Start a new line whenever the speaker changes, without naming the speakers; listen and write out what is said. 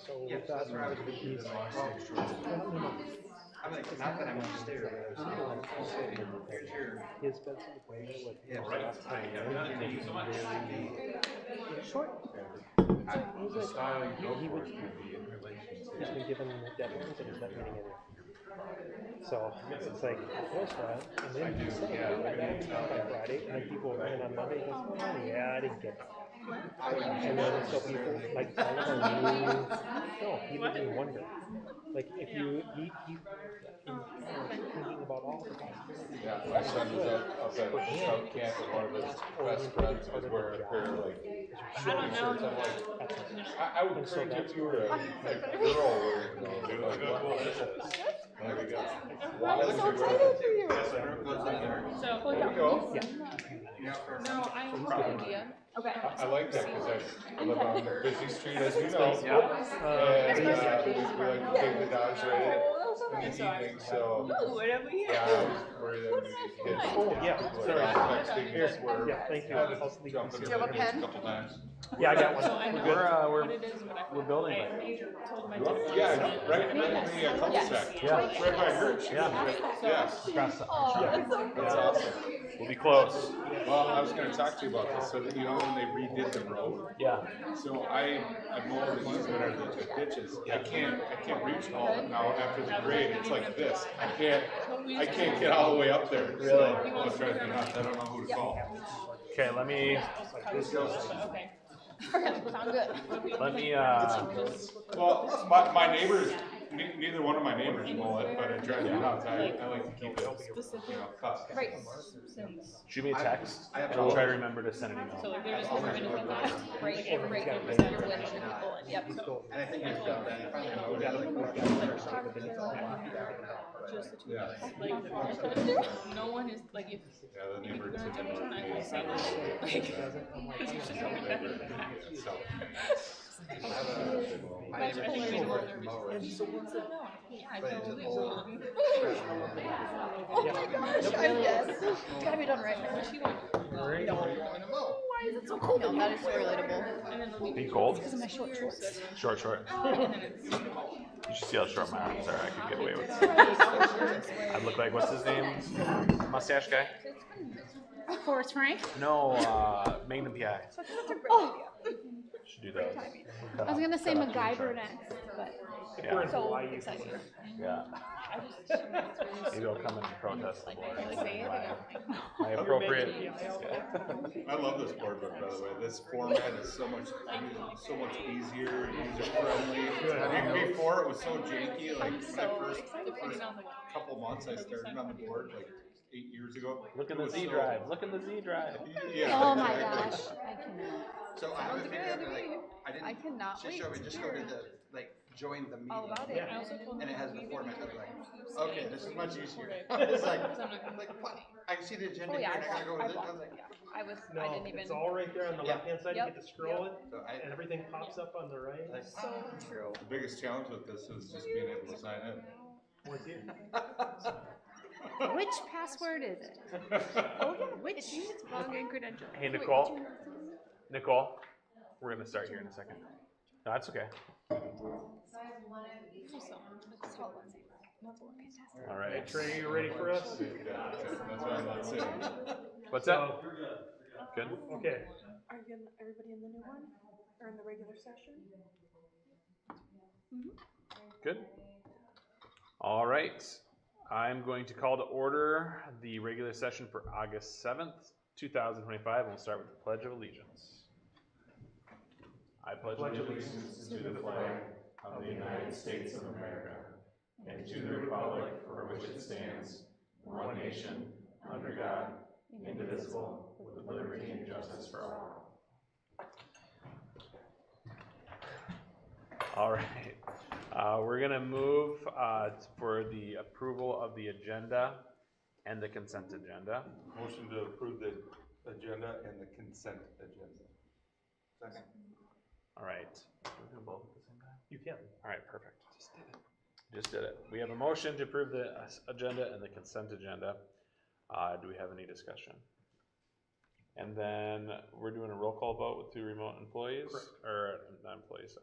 So
Yeah, that's where I was thinking the last six choices. I'm like, not that I'm upstairs, but I was like, okay, here's your.
his bed's in the way, like,
Yeah,
his
right.
last time.
Thank you so much.
Short,
The style you go for is gonna be in relation to.
he's been given deadlines and he's not meeting any. So it's like, what's that? And then he's like, yeah, I gotta be done by Friday, and then people, and on Monday, he goes, oh, yeah, I didn't get that. And then so people, like, all of our new, no, he lived in wonder. Like, if you, he, he, he was thinking about all the possibilities.
Yeah, my son was out, outside of scout camp and one of his best friends was wearing a pair of like shorty shirts. I'm like, I, I would
And so
encourage
that's
if you were a, a girl wearing those. Like, what is this? Like, I got. why
I'm
would
so
you wear
excited
that?
for you.
So,
There you go.
Yeah.
You're out for a
no,
run.
I have no idea.
Okay.
I, I like that because I live on a busy street as you know.
Uh,
And, uh, we like to take the dogs right in the evening, so.
Ooh, whatever you
Yeah, I was worried that maybe kids.
Oh, yeah,
Were
sorry.
texting us were.
Yeah, thank you.
had to
I'll sleep
jump
this
in
Do you have a
the room
pen?
Couple times.
Yeah, I got one.
So I know
We're, uh,
what
we're,
it is, but I.
we're building
I
it.
told my dad.
Yeah, right, right, yeah, cul de
Yeah.
Right by her, she was
Yeah.
right, yes,
Across the-
that's Oh, so
that's awesome.
We'll be close.
Well, I was gonna talk to you about this, so that you know when they redid the road,
Yeah.
so I, I mowed the easement or the ditches, I can't, I can't reach all of it now after the grade, it's like this, I can't, I can't get all the way up there. Really? I was trying to think, I don't know who to call.
Okay, let me,
Okay.
Sound good.
let me, uh,
Well, my, my neighbors, ne- neither one of my neighbors mow it, but I drive it out, I, I like to keep it, you know, cut.
Right.
Since-
shoot me a text
I have
and we'll try to
problems.
remember to send an
So
email.
like they're just never gonna be last.
Right,
Everyone's
right,
got
right
it.
percent of which should be bullet, yep.
And I think I felt that, I finally mowed it, like, four times or something, but it's all blocked out now.
Just the two
Yeah.
of us. Like, no one is, like, if
Yeah, the
if you're
neighbor
gonna
took
jump in, I will say no. Like, 'cause you should know better than that.
My
That's
neighbor
why
thinks
I
she's
was more
working
nervous.
mower.
So what's the no? Yeah, I
But it's
totally
an old-
will.
Oh my gosh, I guess. It's gotta be done right now.
She went,
Why is it so cold? No, that is so relatable.
and then the week.
Be cold?
Because of my short shorts.
Short, short.
And then it's.
You should see how short my arms are. I could get away with it. I look like, what's his name? Mustache guy?
Forrest Frank?
No, uh, Magnum PI.
Oh,
Should do those.
I was gonna say MacGyver next, but
Yeah,
so excited.
yeah.
I just, it's really
Maybe I'll come and protest the board.
Like, say it
My-
again.
My appropriate.
I love this board book, by the way. This format is so much, so much easier and user friendly. I mean, before it was so janky, like
I'm
when I
so
first,
excited for you
first
down the way.
couple months I started on the board, like eight years ago.
Look
it
in the
was
Z
so-
drive. Look in the Z drive.
Yeah,
Oh my
exactly.
gosh, I cannot.
So I haven't figured out, like, I
I
didn't,
cannot
just
wait
show
to
me, just go to
hear
the, like, join the meeting.
all about it.
I also told
And
him
it has
we
the
didn't
format,
have
I'm like,
to do
okay,
same
this is
for
much
the
easier.
survey.
It's like,
Because I'm not gonna-
I'm like, what? I see the agenda
Oh
here
yeah,
and I
I
gotta go with
blocked, I
it. I
blocked,
was like,
yeah. I was,
No,
I didn't even.
it's all right there on the
Yeah.
left-hand side, you
Yep.
get to scroll it,
so I,
and everything pops up on the right.
like,
So true.
The biggest challenge with this is just being able to sign in.
What's it?
Which password is it? Oh yeah, which? It's wrong in credential.
Hey, Nicole. Nicole, we're gonna start here in a second. No, that's okay. All
Hey,
right.
Trey, you ready for us?
That's what I'm not saying.
What's
So,
up? Good.
okay,
Are you, in- everybody in the new one, or in the regular session?
Good. All right. I'm going to call to order the regular session for August seventh, two thousand twenty-five, and we'll start with the Pledge of Allegiance. I pledge
pledge allegiance to the flag of the United States of America and to the republic for which it stands, one nation, under God, indivisible, with liberty and justice for all.
All right, uh, we're gonna move, uh, for the approval of the agenda and the consent agenda.
Motion to approve the agenda and the consent agenda. Second.
All right. Can we do both at the same time?
you can.
All right, perfect. Just did it. Just did it. We have a motion to approve the uh, s- agenda and the consent agenda. Uh, do we have any discussion? And then we're doing a roll call vote with two remote employees, or uh, not employees,